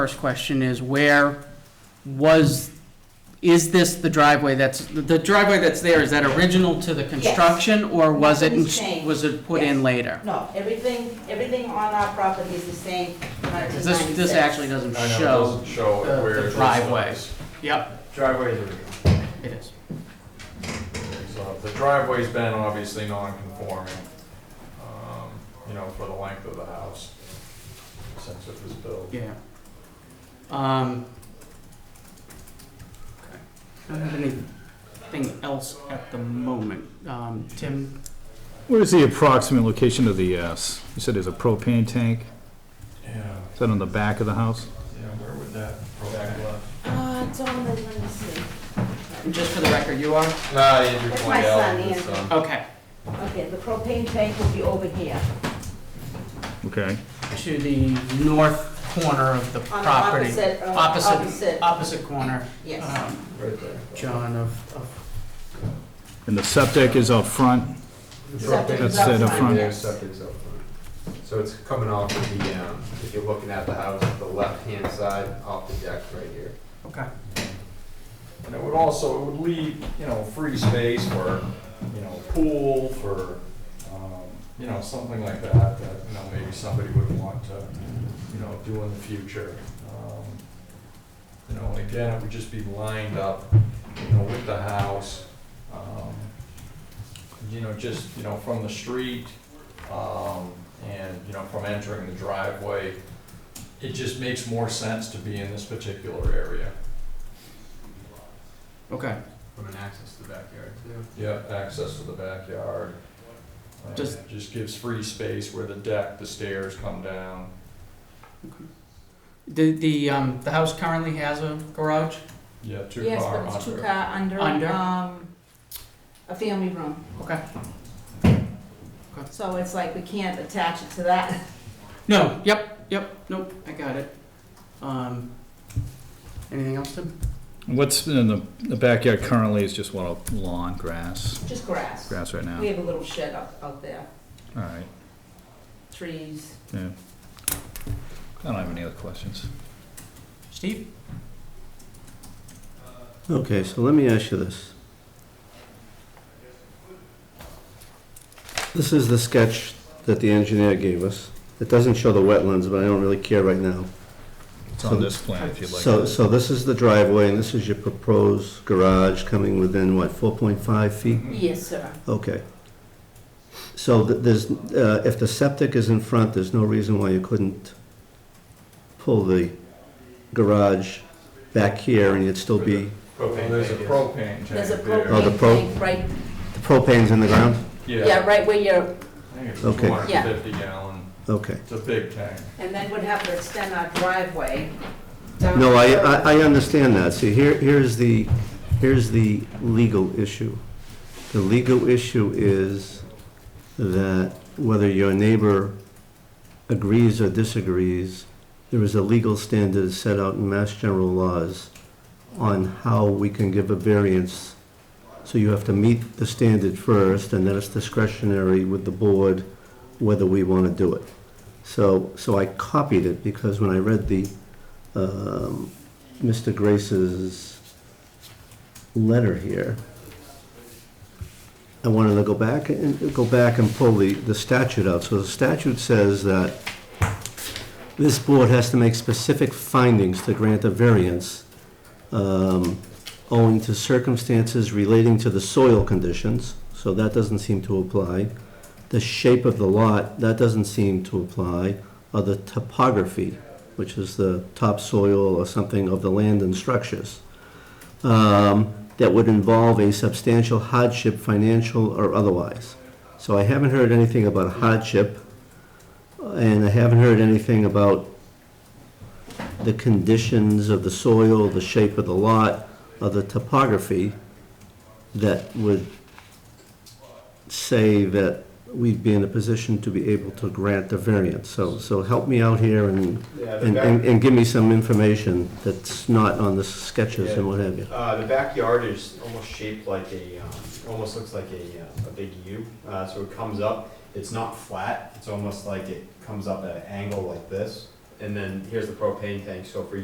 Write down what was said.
First question is where was, is this the driveway that's, the driveway that's there, is that original to the construction? Or was it, Nothing's changed. was it put in Yes. later? No, everything, everything on our property is the same, Uh, nineteen 'Cause ninety-six. This, this actually doesn't I know, it show. doesn't show the- where the this driveway. is. Yep, Driveway is a real. it is. So the driveway's been obviously non-conforming, um, you know, for the length of the house since it was built. Yeah. Um. okay. I don't have anything else at the moment. Um, Tim, What is the approximate location of the, uh, s- you said there's a propane tank? Yeah, Is that on the back of the house? yeah, where would that? Back left. Uh, it's on the, let me see. just for the record, you are? Nah, Andrew That's my pointed out, son, it's, Andrew. um, Okay, Okay, the propane tank will be over here, Okay. to the north corner of the on the property. opposite, uh, Opposite. opposite, Opposite corner. yes. um, right there. John of, of, And the septic is up front? Septic That's is up it up front, front. yes. Septic's up front. So it's coming off of the, um, if you're looking at the house, the left-hand side off the deck right here. okay. And it would also, it would leave, you know, free space for, you know, pool, for, um, you know, something like that, that, you know, maybe somebody would want to, you know, do in the future. Um, You know, and again, it would just be lined up, you know, with the house, um, you know, just, you know, from the street, um, and, you know, from entering the driveway. It just makes more sense to be in this particular area. Okay, From an access to the backyard too. Yeah, access to the backyard. Uh, Just- it Just gives free space where the deck, the stairs come down. the, the, um, the house currently has a garage? Yeah, two Yes, car but it's two under. car under, Under? um, a family room. Okay. So it's like we can't attach it to that. No, yep, yep, nope, I got it. Um, anything else, Tim? What's in the, the backyard currently is just what, a lawn, grass, Just grass. grass right now? We have a little shed out, out there, All right, trees. yeah. I don't have any other questions. Steve? Okay, so let me ask you this. This is the sketch that the engineer gave us. It doesn't show the wetlands, but I don't really care right now. It's So- on this plan if you'd like. So, so this is the driveway, and this is your proposed garage coming within, what, 4.5 feet? Hmm. Mm-hmm. Yes, sir. Okay. So th- there's, uh, if the septic is in front, there's no reason why you couldn't pull the garage back here, and you'd still be, Propane, there's a tank, yes. propane tank There's a there. Oh, the propane pro- tank right, the propane's in the ground? yeah, right where you're, I think it's Okay. two hundred and fifty gallon. Okay. It's a big tank. and then we'd have to extend our driveway down. No, I, uh, I, I understand that. See, here, here's the, here's the legal issue. The legal issue is that whether your neighbor agrees or disagrees, there is a legal standard set out in Mass General laws on how we can give a variance. So you have to meet the standard first, and then it's discretionary with the board whether we want to do it. So, so I copied it because when I read the um, Mr. Grace's letter here. I wanted to go back and, go back and pull the, the statute out. So the statute says that this board has to make specific findings to grant a variance um, owing to circumstances relating to the soil conditions, so that doesn't seem to apply. The shape of the lot, that doesn't seem to apply, or the topography, which is the topsoil or something of the land and structures, um, that would involve a substantial hardship, financial or otherwise. So I haven't heard anything about hardship, and I haven't heard anything about the conditions of the soil, the shape of the lot, or the topography that would say that we'd be in a position to be able to grant the variance. So, so help me out here and Yeah, the and, and, back, and give me some information that's not on the sketches and what have you. uh, the backyard is almost shaped like a, um, almost looks like a, uh, a big U. Uh, so it comes up, it's not flat, it's almost like it comes up at an angle like this. and then here's the propane tank, so for